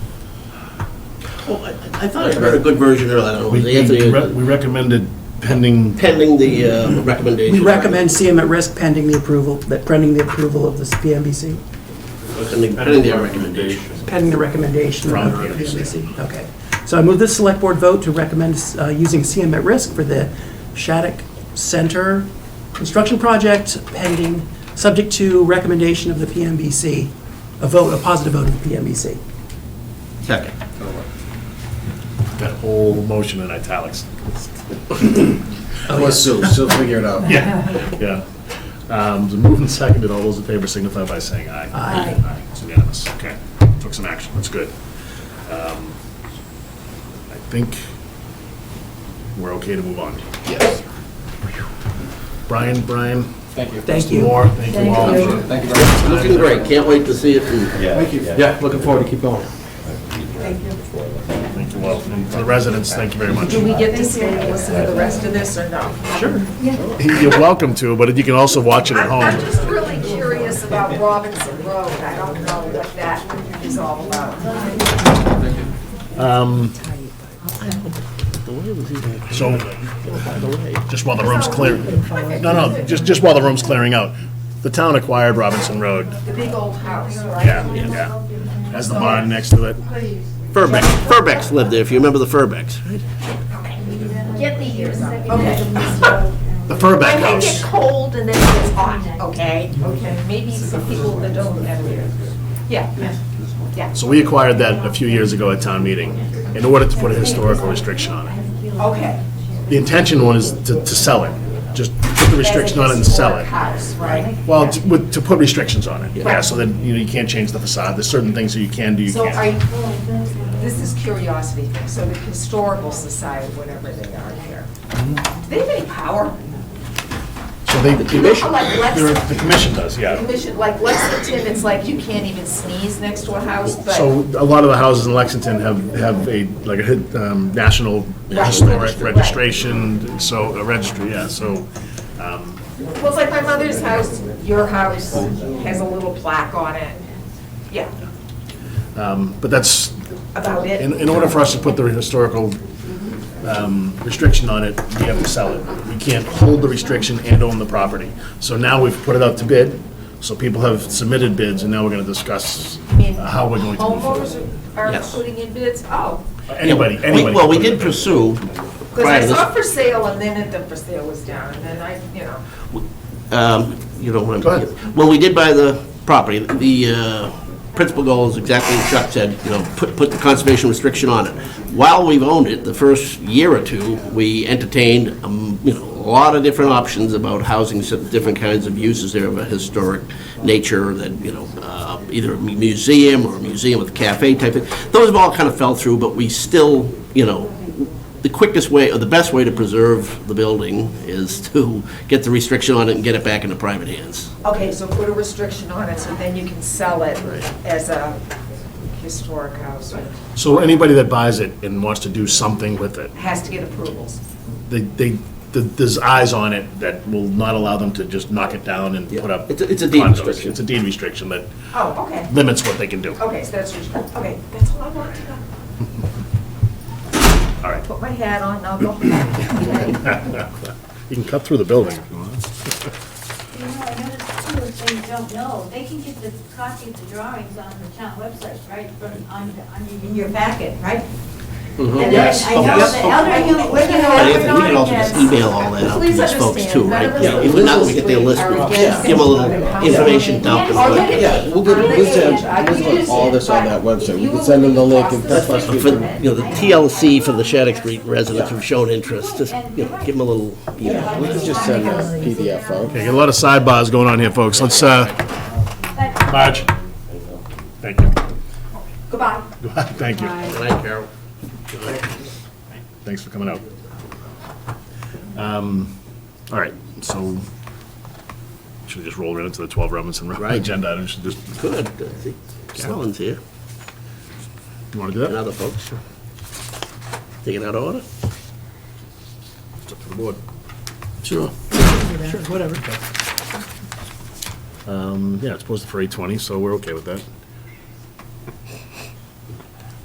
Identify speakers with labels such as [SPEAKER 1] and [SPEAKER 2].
[SPEAKER 1] Oh, I I thought I read a good version earlier, I don't know,
[SPEAKER 2] We
[SPEAKER 1] was it Anthony,
[SPEAKER 2] we re- we recommended pending,
[SPEAKER 1] pending the uh, recommendation.
[SPEAKER 3] We recommend CM at risk pending the approval, that pending the approval of the PMBC,
[SPEAKER 1] Pending pending the recommendation.
[SPEAKER 3] pending the recommendation
[SPEAKER 1] From
[SPEAKER 3] of
[SPEAKER 1] the
[SPEAKER 3] the
[SPEAKER 1] PMBC.
[SPEAKER 3] PMBC. Okay. So I move this select board vote to recommend uh, using CM at risk for the Shattuck Center construction project pending, subject to recommendation of the PMBC, a vote, a positive vote of the PMBC.
[SPEAKER 1] Second.
[SPEAKER 2] that whole motion in italics.
[SPEAKER 4] Plus Sue, she'll figure it out.
[SPEAKER 2] Yeah. Um, it's Moved and seconded, all those in favor signify by saying aye.
[SPEAKER 3] Aye.
[SPEAKER 2] Aye, it's unanimous, okay. Took some action, that's good. Um, I think we're okay to move on.
[SPEAKER 4] Yes.
[SPEAKER 2] Brian, Brian,
[SPEAKER 4] Thank you.
[SPEAKER 3] Thank you.
[SPEAKER 2] Moore, thank you all.
[SPEAKER 5] Thank you.
[SPEAKER 2] for-
[SPEAKER 4] Thank you very much.
[SPEAKER 1] Looking great, can't wait to see it. and-
[SPEAKER 4] Thank you.
[SPEAKER 6] Yeah, looking forward to keep going.
[SPEAKER 5] Thank you.
[SPEAKER 2] Thank you all. And to the residents, thank you very much.
[SPEAKER 7] Do we get to stay and listen to the rest of this or no?
[SPEAKER 2] You're welcome to, but you can also watch it at
[SPEAKER 7] I'm I'm
[SPEAKER 2] home.
[SPEAKER 7] just really curious about Robinson Road. I don't know what that is all about.
[SPEAKER 2] So, just while the room's clear, no, no, just, just while the room's clearing out, the town acquired Robinson Road,
[SPEAKER 7] The big old house, right?
[SPEAKER 2] yeah, yeah, has the barn next to it.
[SPEAKER 1] Furbeck, Furbecks lived there, if you remember the Furbecks, right?
[SPEAKER 5] Get the years up.
[SPEAKER 2] The Furbeck
[SPEAKER 7] When they get
[SPEAKER 2] House.
[SPEAKER 7] cold and then it gets hot, okay? Okay. Maybe some people that don't have it. Yeah.
[SPEAKER 2] So we acquired that a few years ago at town meeting in order to put a historical restriction on it.
[SPEAKER 7] Okay.
[SPEAKER 2] The intention was to, to sell it, just put the restriction on it and sell
[SPEAKER 7] Historic
[SPEAKER 2] it.
[SPEAKER 7] House, right?
[SPEAKER 2] Well, to, with- to put restrictions on it, yeah, so that, you know, you can't change the facade, there's certain things that you can do, you
[SPEAKER 7] So I,
[SPEAKER 2] can't.
[SPEAKER 7] this is curiosity thing, so the historical society, whatever they are here,
[SPEAKER 2] Mm-hmm.
[SPEAKER 7] do they have any power?
[SPEAKER 2] So they,
[SPEAKER 7] You know how like
[SPEAKER 2] they're-
[SPEAKER 7] Lexington,
[SPEAKER 2] the commission does, yeah.
[SPEAKER 7] commission, like Lexington, it's like you can't even sneeze next to a house,
[SPEAKER 2] So
[SPEAKER 7] but
[SPEAKER 2] a lot of the houses in Lexington have, have a, like a hit- um, national
[SPEAKER 7] Right.
[SPEAKER 2] historic
[SPEAKER 7] Registry.
[SPEAKER 2] registration, so, a registry, yeah, so.
[SPEAKER 7] Well, it's like my mother's house, your house has a little plaque on it. Yeah,
[SPEAKER 2] But that's,
[SPEAKER 7] about it.
[SPEAKER 2] in, in order for us to put the historical um, restriction on it, we have to sell it. We can't hold the restriction and own the property. So now we've put it out to bid, so people have submitted bids, and now we're gonna discuss
[SPEAKER 7] I mean,
[SPEAKER 2] how we're going to move forward.
[SPEAKER 7] Homeowners are- are
[SPEAKER 1] Yes.
[SPEAKER 7] putting in bids, oh.
[SPEAKER 2] Anybody,
[SPEAKER 1] We-
[SPEAKER 2] anybody.
[SPEAKER 1] Well, we
[SPEAKER 2] can put it in
[SPEAKER 1] did
[SPEAKER 2] bid.
[SPEAKER 1] pursue,
[SPEAKER 7] Because
[SPEAKER 1] prior
[SPEAKER 7] I
[SPEAKER 1] to
[SPEAKER 7] saw
[SPEAKER 1] this,
[SPEAKER 7] for sale and then it- the for sale was down and then I, you know,
[SPEAKER 1] um, you don't want
[SPEAKER 2] Go
[SPEAKER 1] to.
[SPEAKER 2] ahead.
[SPEAKER 1] Well, we did buy the property, the uh, principal goal is exactly what Chuck said, you know, put, put the conservation restriction on it. While we've owned it, the first year or two, we entertained, um, you know, a lot of different options about housing, some different kinds of uses there of a historic nature that, you know, uh, either a mu- museum or a museum with a cafe type of, those have all kind of fell through, but we still, you know, the quickest way, or the best way to preserve the building is to get the restriction on it and get it back into private hands.
[SPEAKER 7] okay, so put a restriction on it so then you can sell it as a historic house. It
[SPEAKER 2] So anybody that buys it and wants to do something with it,
[SPEAKER 7] Has to get approvals.
[SPEAKER 2] they, they, th- there's eyes on it that will not allow them to just knock it down and
[SPEAKER 1] Yeah.
[SPEAKER 2] put up.
[SPEAKER 1] It's a- it's a deed
[SPEAKER 2] condos.
[SPEAKER 1] restriction.
[SPEAKER 2] It's a deed restriction that
[SPEAKER 7] Oh, okay,
[SPEAKER 2] limits what they can do.
[SPEAKER 7] okay, so that's, restrict- okay, that's all I want to know.
[SPEAKER 2] All right.
[SPEAKER 7] Put my hat on, I'll go home.
[SPEAKER 2] You can cut through the building if you want.
[SPEAKER 5] You know, I noticed too, if they don't know, they can get the copy of the drawings on the town website, right, from, on, the- on, your- in your packet, right? And then
[SPEAKER 2] Mm-hmm. Yes,
[SPEAKER 5] I know
[SPEAKER 2] yes.
[SPEAKER 5] the elderly
[SPEAKER 7] Look at
[SPEAKER 5] women
[SPEAKER 7] that.
[SPEAKER 1] But
[SPEAKER 5] are
[SPEAKER 1] Anthony, we can also just email all that out to
[SPEAKER 7] Please
[SPEAKER 1] these folks too,
[SPEAKER 7] understand,
[SPEAKER 1] right?
[SPEAKER 7] none of
[SPEAKER 1] Yeah,
[SPEAKER 7] us
[SPEAKER 1] If not, we get their list, we
[SPEAKER 7] are
[SPEAKER 1] give
[SPEAKER 7] against
[SPEAKER 1] them a little information dump.
[SPEAKER 5] Yes.
[SPEAKER 1] and put-
[SPEAKER 6] Yeah, we'll get, we'll send, we'll put all this on that website. We can send them the link and that's what
[SPEAKER 1] For, you know, the TLC for the Shattuck Street residents who've shown interest, just, you know, give them a little email.
[SPEAKER 6] We can just send a PDF out.
[SPEAKER 2] Okay, got a lot of sidebars going on here, folks. Let's, uh, Marge. Thank you.
[SPEAKER 7] Goodbye.
[SPEAKER 2] Thank you.
[SPEAKER 1] Good night, Carol.
[SPEAKER 2] Thanks for coming out. Um, All right, so should we just roll right into the 12 Robinson Road
[SPEAKER 1] Right.
[SPEAKER 2] agenda? I should just,
[SPEAKER 1] Good, I think Colin's here
[SPEAKER 2] you want to do
[SPEAKER 1] and
[SPEAKER 2] that?
[SPEAKER 1] other folks. Taking out of order?
[SPEAKER 2] It's up to the board.
[SPEAKER 1] Sure.
[SPEAKER 3] Sure, whatever.
[SPEAKER 2] Um, Yeah, it's posted for 8:20, so we're okay with that.